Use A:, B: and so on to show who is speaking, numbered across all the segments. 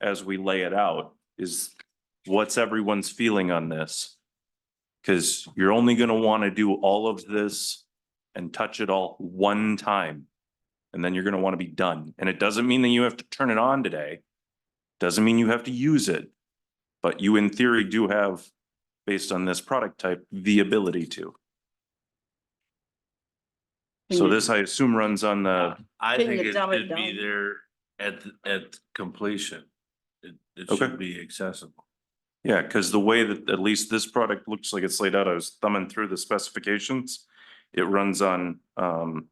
A: as we lay it out is what's everyone's feeling on this? Cause you're only gonna wanna do all of this and touch it all one time. And then you're gonna wanna be done. And it doesn't mean that you have to turn it on today. Doesn't mean you have to use it. But you in theory do have, based on this product type, the ability to. So
B: Can you-
A: this, I assume, runs on the,
C: Uh, I
B: Can
C: think
B: you
C: it
B: dumb it
C: should be
B: down?
C: there at, th- at completion. It, it
A: Okay.
C: should be accessible.
A: yeah, because the way that at least this product looks like it's laid out, I was thumbing through the specifications. It runs on um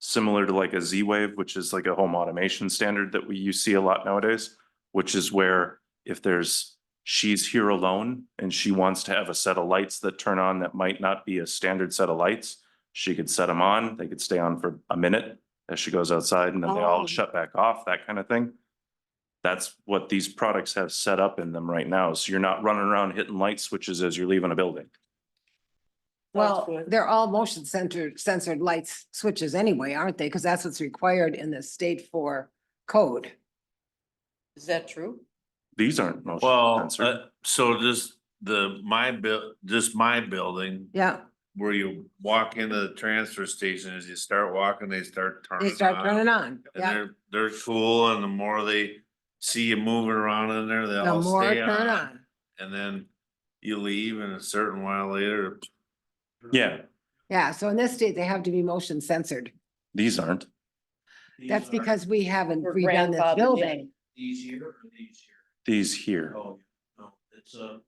A: similar to like a Z-Wave, which is like a home automation standard that we you see a lot nowadays, which is where if there's she's here alone and she wants to have a set of lights that turn on that might not be a standard set of lights, she could set them on, they could stay on for a minute as she goes outside and then they all
B: Oh.
A: shut back off, that kind of thing. That's what these products have set up in them right now. So you're not running around hitting light switches as you're leaving a building.
D: Well, they're all motion centered, censored lights switches anyway, aren't they? Because that's what's required in the state for code.
B: Is that true?
A: These aren't motion
C: Well,
A: sensor.
C: uh, so this, the, my bill, just my building,
D: Yeah,
C: where you walk into the transfer station, as you start walking, they start
D: they
C: turning
D: start
C: on.
D: turning on.
C: Uh-huh. And
D: Yeah,
C: they're, they're cool, and the more they see you moving around in there, they
D: the
C: all
D: more
C: stay
D: turn
C: on.
D: on.
C: And then you leave and a certain while later.
A: Yeah,
D: Yeah, so in this state, they have to be motion censored.
A: these aren't.
D: That's because we haven't
B: We're grandfathered
D: redone this
B: in.
D: building.
E: These here or these here?
A: These here.
E: Oh, no, it's a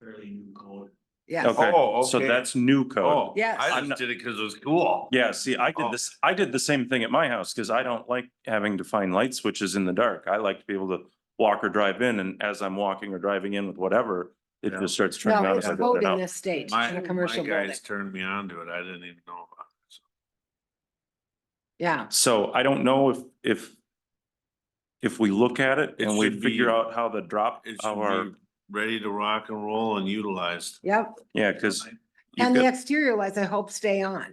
E: fairly new code.
D: Yes,
A: Okay,
C: Oh,
A: so
C: okay.
A: that's new code.
C: Oh,
D: Yes.
C: I
A: I'm not-
C: just did it because it was cool.
A: Yeah, see, I
C: Oh.
A: did this, I did the same thing at my house because I don't like having to find light switches in the dark. I like to be able to walk or drive in and as I'm walking or driving in with whatever, it
C: Yeah.
A: just starts turning
D: no,
A: on.
D: it's
A: as I
D: code
A: go
D: in
A: out.
D: this state,
C: My,
D: in a
C: my
D: commercial building.
C: guys turned me on to it. I didn't even know. about it. So
D: Yeah,
A: So I don't know if, if if we look at it
C: It
A: and we
C: should
A: figure
C: be-
A: out how the drop,
C: It
A: how our,
C: should be ready to rock and roll and utilized.
D: yep.
A: yeah, because
D: And the exterior lights, I hope, stay on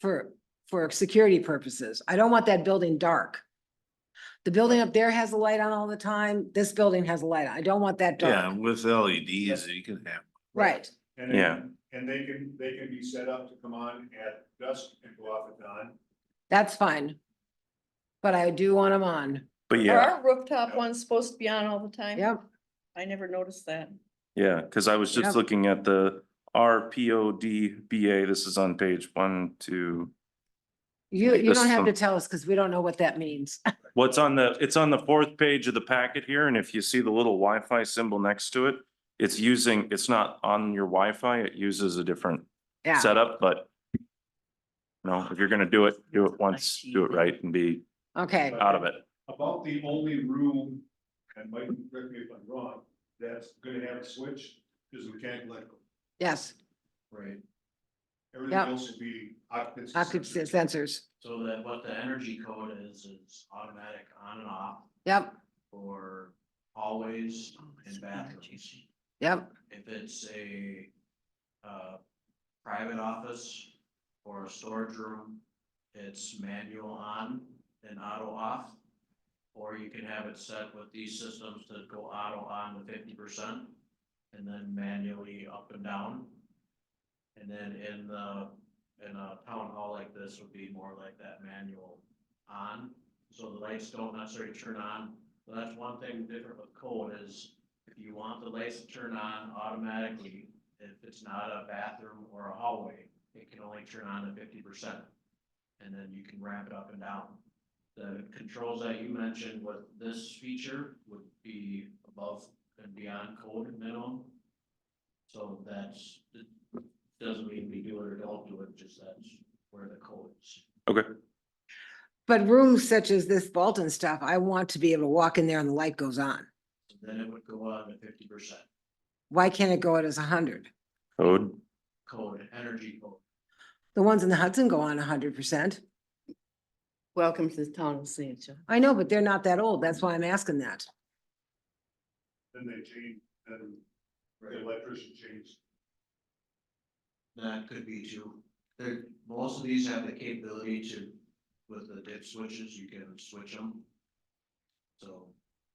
D: for, for security purposes. I don't want that building dark. The building up there has a light on all the time. This building has a light on. I don't want that
C: Yeah,
D: dark.
C: with LEDs, you can have.
D: Right.
F: And they-
A: Yeah.
F: And they can, they can be set up to come on at dusk and go off at dawn.
D: That's fine. But I do want them on.
A: but
B: Are
A: yeah,
B: our rooftop ones supposed to be on all the time?
D: Yep.
B: I never noticed that.
A: yeah, because I was
D: Yep.
A: just looking at the R P O D B A. This is on page one, two.
D: You,
A: Like
D: you
A: this
D: don't have to
A: some-
D: tell us because we don't know what that means.
A: What's on the, it's on the fourth page of the packet here, and if you see the little Wi-Fi symbol next to it, it's using, it's not on your Wi-Fi. it uses a different
D: Yeah.
A: setup, but no, if you're gonna do it, do it once, do it right and be
D: Okay.
A: out of it.
F: About the only room, and Mike, correct me if I'm wrong, that's gonna have a switch is mechanical electrical.
D: Yes.
F: Right. Everything
D: Yep.
F: else will be occupancy.
D: Occupancy
F: sensitive.
D: sensors.
E: So that what the energy code is, is automatic on and off
D: Yep.
E: for hallways and bathrooms.
D: Yep.
E: If it's a, uh, private office or a storage room, it's manual on and auto off. Or you can have it set with these systems to go auto on to fifty percent and then manually up and down. And then in the, in a town hall like this would be more like that manual on. So the lights don't necessarily turn on. So that's one thing different with code is if you want the lights to turn on automatically, if it's not a bathroom or a hallway, it can only turn on at fifty percent. And then you can ramp it up and down. The controls that you mentioned with this feature would be above and beyond code minimum. So that's, it doesn't mean we do it or don't do it, just that's where the code is.
D: But rooms such as this Bolton stuff, I want to be able to walk in there and the light goes on.
E: So Then it would go on to fifty percent
D: Why can't it go out as a hundred?
A: Code,
E: code, energy code.
D: The ones in the Hudson go on hundred percent.
B: Welcome to the town of St. John.
D: I know, but they're not that old. That's why I'm asking that.
F: Then they change, then the electrician changes.
E: That could be too. There, most of these have the capability to, with the dip switches, you can switch them. So